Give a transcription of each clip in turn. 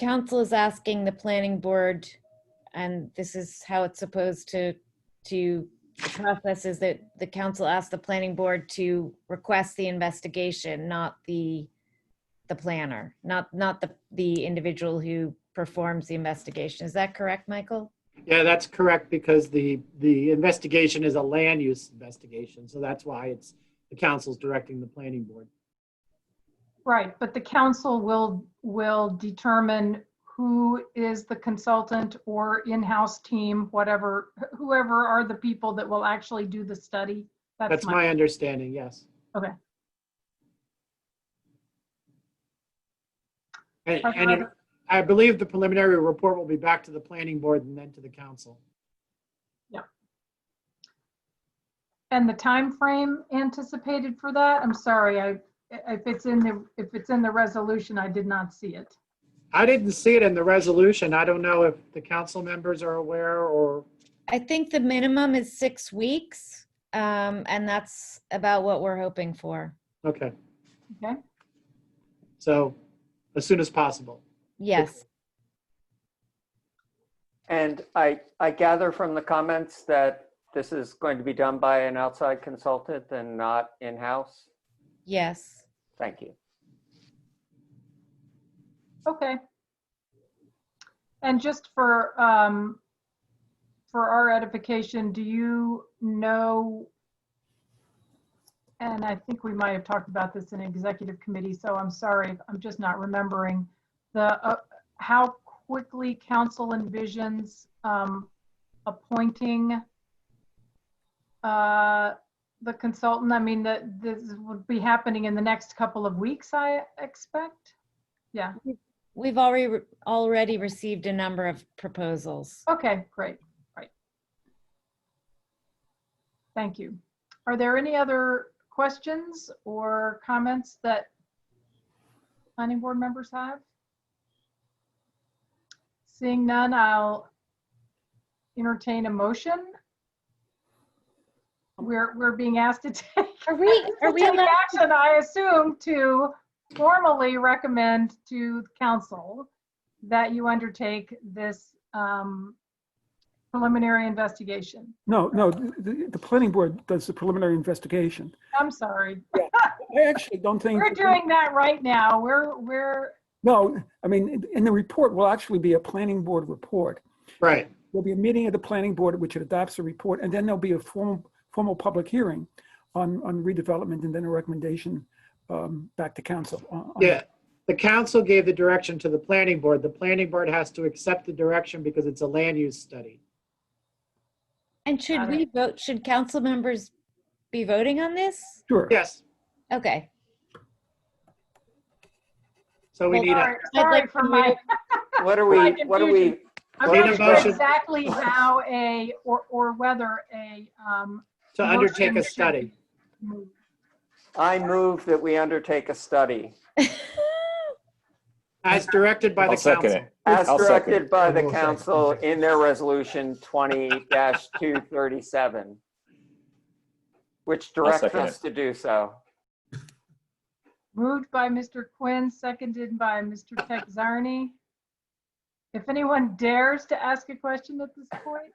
council is asking the planning board, and this is how it's supposed to, to, the process is that the council asks the planning board to request the investigation, not the, the planner, not, not the, the individual who performs the investigation. Is that correct, Michael? Yeah, that's correct, because the, the investigation is a land use investigation, so that's why it's, the council's directing the planning board. Right, but the council will, will determine who is the consultant or in-house team, whatever, whoever are the people that will actually do the study. That's my understanding, yes. Okay. And, I'd and it- rather- I believe the preliminary report will be back to the planning board and then to the council. And the time frame anticipated for that? I'm sorry, I, if it's in the, if it's in the resolution, I did not see it. I didn't see it in the resolution. I don't know if the council members are aware or, I think the minimum is six weeks, um, and that's about what we're hoping for. okay, Okay, so as soon as possible. Yes, And I, I gather from the comments that this is going to be done by an outside consultant and not in-house? yes. Thank you. okay. And just for, um, for our edification, do you know? And I think we might have talked about this in executive committee, so I'm sorry, if I'm just not remembering. The, uh, how quickly council envisions, um, appointing, uh, the consultant, I mean, that this would be happening in the next couple of weeks, I expect? Yeah, We've already, re- already received a number of proposals. Okay, great, right. Thank you. Are there any other questions or comments that planning board members have? Seeing none, I'll entertain a motion. We're, we're being asked to take, Are we, are to we take allowed, action, I assume, to formally recommend to council that you undertake this um, preliminary investigation. No, no, the, the- the planning board does the preliminary investigation. I'm sorry, I actually don't think. we're doing that right now. We're, we're, No, I mean, in- in the report will actually be a planning board report. Right, There'll be a meeting of the planning board, which adopts a report, and then there'll be a formal, formal public hearing on, on redevelopment and then a recommendation um, back to council. on- on- yeah. The council gave the direction to the planning board. The planning board has to accept the direction because it's a land use study. and should Got we vote, should council members be voting on this? Sure. Yes, Okay, so we Well, need a, sorry- I'd sorry like for to my, What are My we, what are we, confusion. I'm Need a not sure motion. exactly how a, or, or whether a, um, to undertake motion a should study. be moved. I move that we undertake a study As directed by the I'll second council. it. as I'll second. directed by the I'll second. council in their resolution 20-237, which directs second us to do so. Moved by Mr. Quinn, seconded by Mr. Texarney. If anyone dares to ask a question at this point,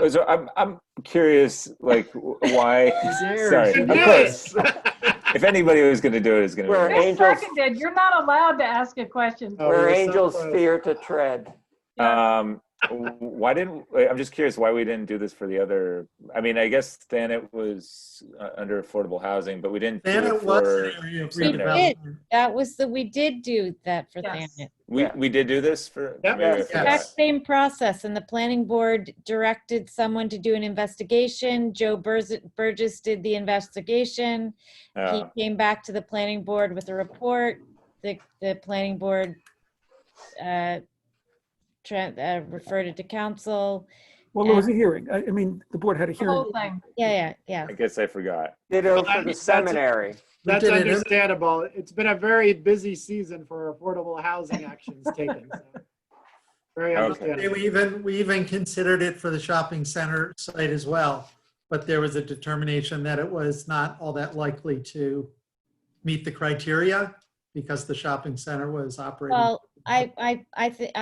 Oh, So I'm, I'm curious, like, w- why? Sorry, You of did course. it. If anybody was going to do it, it's going We're to you're angels. seconded, you're not allowed to ask a question. Oh, Where we're so angels close. fear to tread. be. Um, w- why didn't? I'm just curious why we didn't do this for the other. I mean, I guess then it was uh, under affordable housing, but we didn't. do Then it was for- an area of We did. redevelopment. that was the, we did do that for Yes. Thanet. We we did do this for. Yep. maybe I Yes. forgot. Exact same process, and the planning board directed someone to do an investigation. Joe Burz- Burgess did the investigation. He Uh, came back to the planning board with a report. The, the planning board uh, tran- uh, referred it to council. Well, there was a hearing. I, I mean, the board had a The hearing. whole thing. Yeah, yeah, yeah. I guess I forgot. Ditto Well, for the that's- that's a- seminary. We That's did it every- understandable. It's been a very busy season for affordable housing actions taken. so. Very Okay. And understandable. We even, we even considered it for the shopping center site as well, but there was a determination that it was not all that likely to meet the criteria because the shopping center was operating. Well, I, I, I, thi-